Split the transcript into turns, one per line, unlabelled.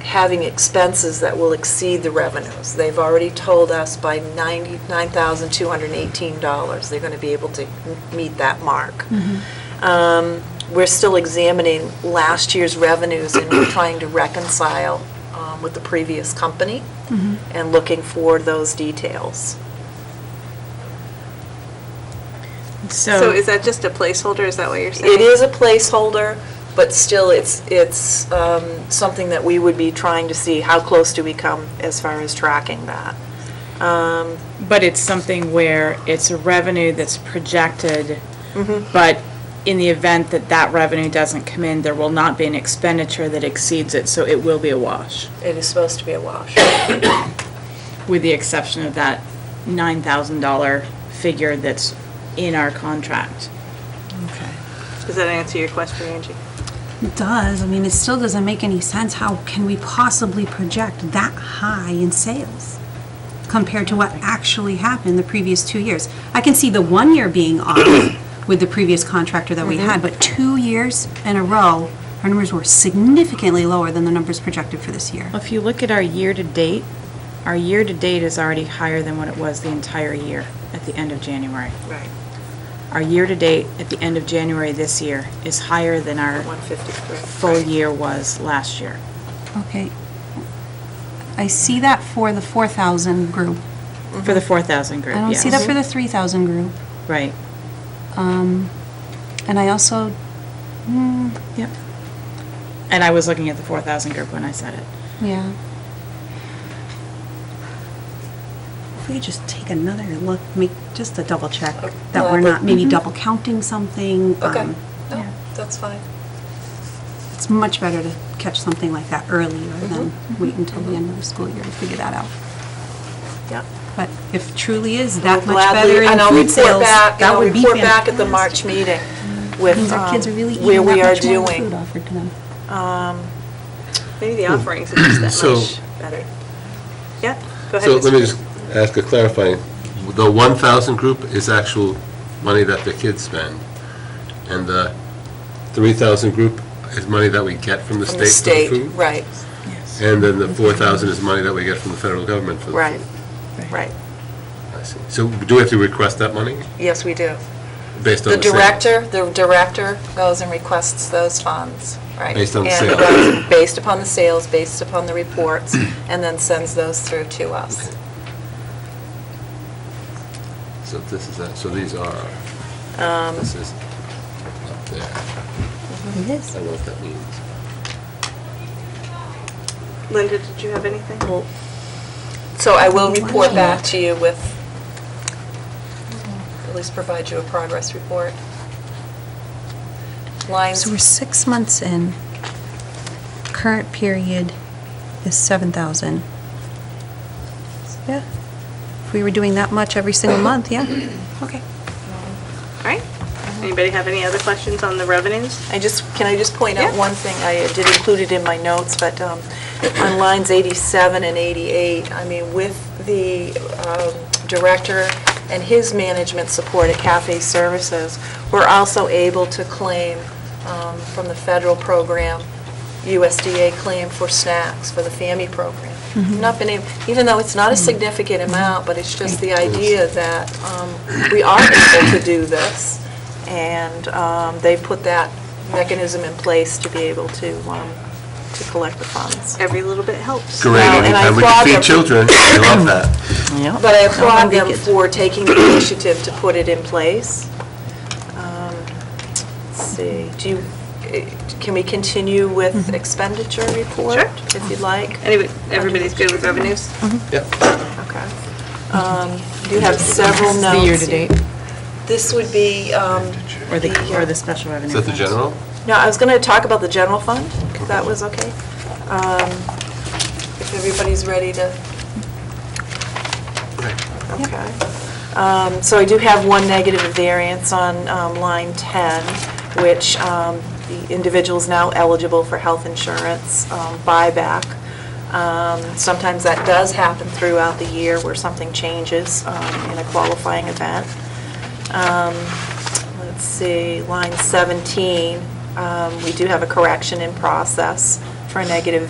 having expenses that will exceed the revenues. They've already told us by $99,218, they're going to be able to m- meet that mark. Um, We're still examining last year's revenues and we're trying to reconcile um, with the previous company and looking for those details.
So is that just a placeholder, is that what you're saying?
Oh. It is a placeholder, but still, it's, it's um, something that we would be trying to see, how close do we come as far as tracking that?
But it's something where it's a revenue that's projected, but in the event that that revenue doesn't come in, there will not be an expenditure that exceeds it, so it will be a wash,
It is supposed to be a wash.
with the exception of that $9,000 figure that's in our contract.
Does that answer your question, Angie?
It does. I mean, it still doesn't make any sense. How can we possibly project that high in sales compared to what actually happened the previous two years? I can see the one year being off with the previous contractor that we had, but two years in a row, our numbers were significantly lower than the numbers projected for this year.
If you look at our year-to-date, our year-to-date is already higher than what it was the entire year at the end of January.
Right,
Our year-to-date at the end of January this year is higher than our
153.
full year was last year.
Okay. I see that for the 4,000 group.
For the 4,000 group,
I don't
yes.
see that for the 3,000 group.
Right,
And I also,
yep. And I was looking at the 4,000 group when I said it.
Yeah. If we could just take another look, make, just a double check that we're not maybe double counting something.
mm-hmm. Okay,
um,
no, that's fine.
It's much better to catch something like that earlier
Mm-hmm.
than wait until the end of the school year to figure that out.
Yep.
But if truly is that much
Gladly,
better in
and I'll
food
report
sales,
back, and
that
I'll
would be
report back at the March
fantastic.
meeting with
Means our kids are
um,
really
where
eating
we are
that much more food
doing.
offered to them.
Maybe the offerings are just that
So-
much better. Yeah, go ahead.
So let
Mr.
me just ask a clarifying. The 1,000 group is actual money that the kids spend, and the 3,000 group is money that we get from the
From the state,
state for the food?
right,
And then the 4,000 is money that we get from the federal government for the food?
right, right.
I see. So do we have to request that money
Yes, we do.
based on
The
the sale?
director, the director goes and requests those funds, right?
Based on the
And
sales.
goes- Based upon the sales, based upon the reports, and then sends those through to us.
So this is, that. so these are,
Um,
this is up there. I
It is.
don't know what that means.
Linda, did you have anything?
So I will report back to you with, at least provide you a progress report. Lines,
So we're six months in. Current period is seven thousand. Yeah. If we were doing that much every single month, yeah, okay.
All right. Anybody have any other questions on the revenues?
I just, can I just point out
Yeah.
one thing? I did include it in my notes, but um, on lines 87 and 88, I mean, with the um, director and his management support at Cafe Services, we're also able to claim um, from the federal program, USDA claim for snacks for the FAMI program. Not been able, even though it's not a significant amount, but it's just the idea that um, we are able to do this, and um, they put that mechanism in place to be able to, um, to collect the funds.
Every little bit helps.
Great,
Well, and I
anytime we
applaud
can
them.
feed children, I love that.
But I applaud them for taking the initiative to put it in place. Um, Let's see, do you, eh, can we continue
Mm-hmm.
with expenditure report?
Sure.
If you'd like.
Anyway, everybody's good with revenues?
Okay. Um, You have several
This
notes.
is the year-to-date,
This would be, um,
or the, or
uh,
the special revenue.
Is that the
funds.
general?
No, I was going to talk about the general fund, if that was okay. Um, If everybody's ready to... Okay. Um, So I do have one negative variance on um, line 10, which um, the individual is now eligible for health insurance um, buyback. Um, Sometimes that does happen throughout the year where something changes um, in a qualifying event. Let's see, line 17, um, we do have a correction in process for a negative